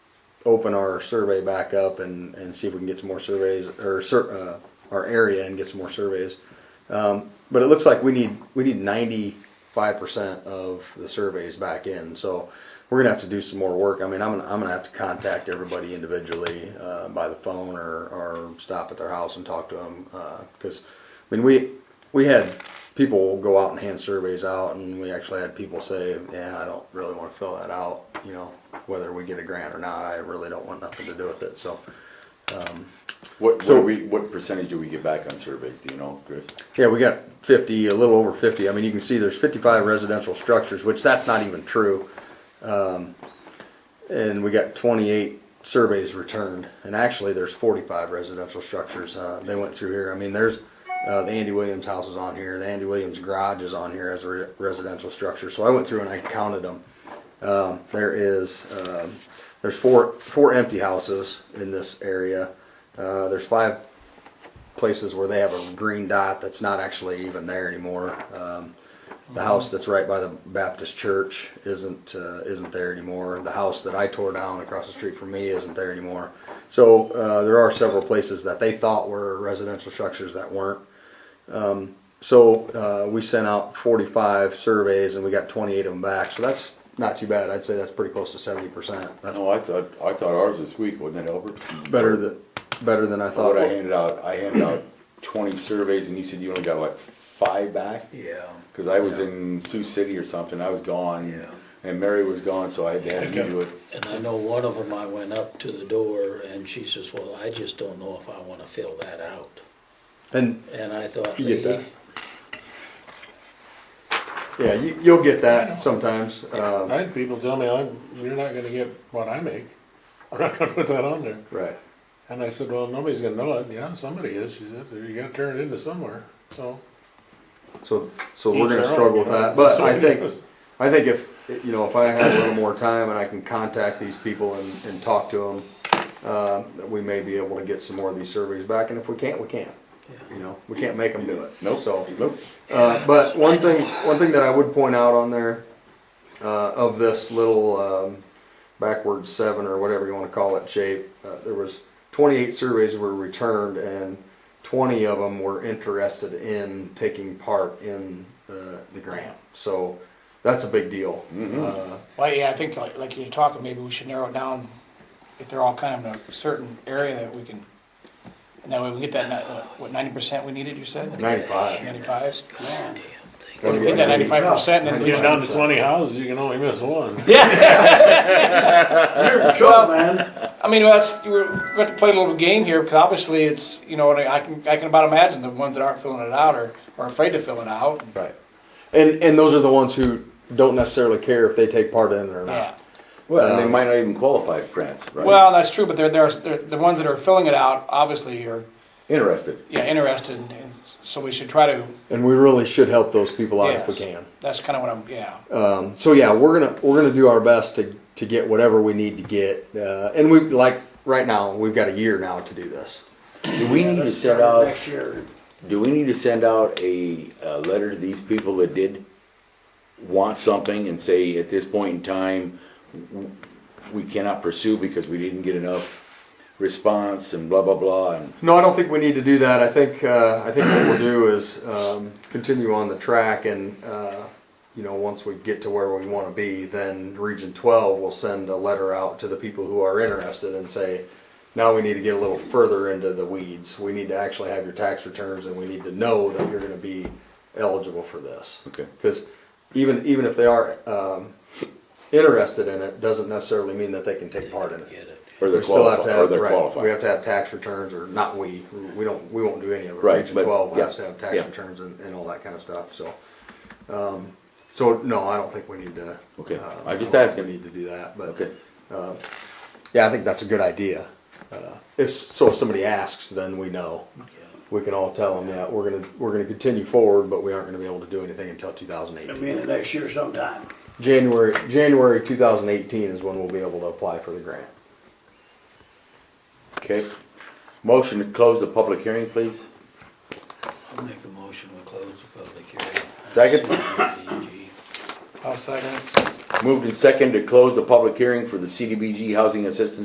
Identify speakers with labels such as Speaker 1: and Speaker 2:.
Speaker 1: open our survey back up and, and see if we can get some more surveys or sur- uh, our area and get some more surveys. Um, but it looks like we need we need ninety five percent of the surveys back in, so we're gonna have to do some more work. I mean, I'm gonna I'm gonna have to contact everybody individually uh, by the phone or or stop at their house and talk to them because I mean we we had people go out and hand surveys out, and we actually had people say, "Yeah, I don't really want to fill that out." You know, whether we get a grant or not, I really don't want nothing to do with it. So,
Speaker 2: What,
Speaker 1: So-
Speaker 2: what we, what percentage do we get back on surveys, do you know, Chris?
Speaker 1: yeah, we got 50, a little over 50. I mean, you can see there's 55 residential structures, which that's not even true. Um, and we got 28 surveys returned, and actually there's 45 residential structures. Uh, they went through here. I mean, there's uh, the Andy Williams house is on here. The Andy Williams garage is on here as a re- residential structure. So I went through and I counted them. Um, there is um, there's four four empty houses in this area. Uh, there's five places where they have a green dot that's not actually even there anymore. Um, the house that's right by the Baptist church isn't, uh, isn't there anymore. The house that I tore down across the street from me isn't there anymore. So, uh, there are several places that they thought were residential structures that weren't. Um, so, uh, we sent out forty-five surveys and we got twenty-eight of them back, so that's not too bad. I'd say that's pretty close to seventy percent. That's
Speaker 2: No, I thought, I thought ours this week, wasn't it, Albert?
Speaker 1: better than, better than I thought.
Speaker 2: What I handed out, I handed out twenty surveys and you said you only got like five back?
Speaker 3: Yeah,
Speaker 2: Cause I was in Sioux City or something, I was gone.
Speaker 3: Yeah.
Speaker 2: And Mary was gone, so I
Speaker 3: Yeah, I
Speaker 2: had to do it.
Speaker 3: and I know one of them, I went up to the door and she says, well, I just don't know if I wanna fill that out.
Speaker 1: And,
Speaker 3: And I thought,
Speaker 1: You get that.
Speaker 3: "Lady,
Speaker 1: yeah, you, you'll get that sometimes, um,
Speaker 4: I had people tell me, I'm, you're not gonna get what I make, I'm not gonna put that on there.
Speaker 1: Right.
Speaker 4: And I said, well, nobody's gonna know it, yeah, somebody is, she said, you gotta turn it into somewhere, so.
Speaker 1: So, so we're
Speaker 4: Each
Speaker 1: gonna
Speaker 4: their own,
Speaker 1: struggle with
Speaker 4: you know.
Speaker 1: that, but I
Speaker 4: So-
Speaker 1: think, I think if, you know, if I have a little more time and I can contact these people and, and talk to them, uh, we may be able to get some more of these surveys back, and if we can't, we can't. You know, we can't make them do it.
Speaker 2: Nope.
Speaker 1: So,
Speaker 2: Nope.
Speaker 1: uh, but one thing, one thing that I would point out on there, uh, of this little, um, backward seven or whatever you wanna call it shape, uh, there was twenty-eight surveys were returned and twenty of them were interested in taking part in the, the grant. So that's a big deal.
Speaker 5: Mm-hmm.
Speaker 1: Uh,
Speaker 5: Well, yeah, I think like, like you're talking, maybe we should narrow it down if they're all kind of in a certain area that we can, and that way we get that, ni- uh, what, ninety percent we needed, you said?
Speaker 1: Ninety-five.
Speaker 5: Ninety-five? Yeah.
Speaker 1: Well,
Speaker 5: Get that ninety-five percent and
Speaker 4: When
Speaker 5: then.
Speaker 4: you get down to twenty houses, you can only miss one.
Speaker 5: Well, I mean, that's, we're, we have to play a little game here, because obviously it's, you know, and I can, I can about imagine the ones that aren't filling it out are, are afraid to fill it out.
Speaker 1: Right. And, and those are the ones who don't necessarily care if they take part in it or
Speaker 5: Yeah.
Speaker 1: not.
Speaker 2: Well, and they might not even qualify for grants, right?
Speaker 5: Well, that's true, but they're, they're, they're, the ones that are filling it out, obviously are,
Speaker 2: Interested.
Speaker 5: yeah, interested, and so we should try to,
Speaker 1: And we really should help those people out if we
Speaker 5: Yes.
Speaker 1: can.
Speaker 5: that's kind of what I'm, yeah.
Speaker 1: Um, so yeah, we're gonna we're gonna do our best to to get whatever we need to get, uh, and we like right now we've got a year now to do this.
Speaker 2: Do we need to set out? Do we need to send out a, a letter to these people that did want something and say, at this point in time, w- we cannot pursue because we didn't get enough response and blah, blah, blah, and
Speaker 1: No, I don't think we need to do that. I think uh, I think what we'll do is um, continue on the track, and uh, you know, once we get to where we want to be, then Region Twelve will send a letter out to the people who are interested and say, now we need to get a little further into the weeds. We need to actually have your tax returns, and we need to know that you're going to be eligible for this.
Speaker 2: Okay.
Speaker 1: Because even even if they are um, interested in it, doesn't necessarily mean that they can take part in it.
Speaker 3: Get it.
Speaker 2: or they're
Speaker 1: We still have
Speaker 2: qualified,
Speaker 1: to
Speaker 2: or
Speaker 1: have,
Speaker 2: they're
Speaker 1: right, we have
Speaker 2: qualified.
Speaker 1: to have tax returns, or not we, we don't, we won't do any of it.
Speaker 2: Right,
Speaker 1: Region
Speaker 2: but-
Speaker 1: twelve
Speaker 2: yeah,
Speaker 1: has to have tax
Speaker 2: yeah.
Speaker 1: returns and, and all that kind of stuff, so. um, So, no, I don't think we need to.
Speaker 2: Okay,
Speaker 1: uh,
Speaker 2: I'm just
Speaker 1: I don't think
Speaker 2: asking.
Speaker 1: We need to do that, but.
Speaker 2: Okay,
Speaker 1: Yeah, I think that's a good idea. Uh, If, s- so if somebody asks, then we know. We can all tell them, yeah, we're gonna, we're gonna continue forward, but we aren't gonna be able to do anything until two thousand
Speaker 6: It'll
Speaker 1: eighteen.
Speaker 6: be in the next year sometime.
Speaker 1: January, January two thousand eighteen is when we'll be able to apply for the grant.
Speaker 2: okay. Motion to close the public hearing, please.
Speaker 3: I'll make a motion to close the public hearing.
Speaker 2: Second,
Speaker 3: CDBG.
Speaker 5: I'll second it.
Speaker 2: moved and second to close the public hearing for the CDBG Housing Assistance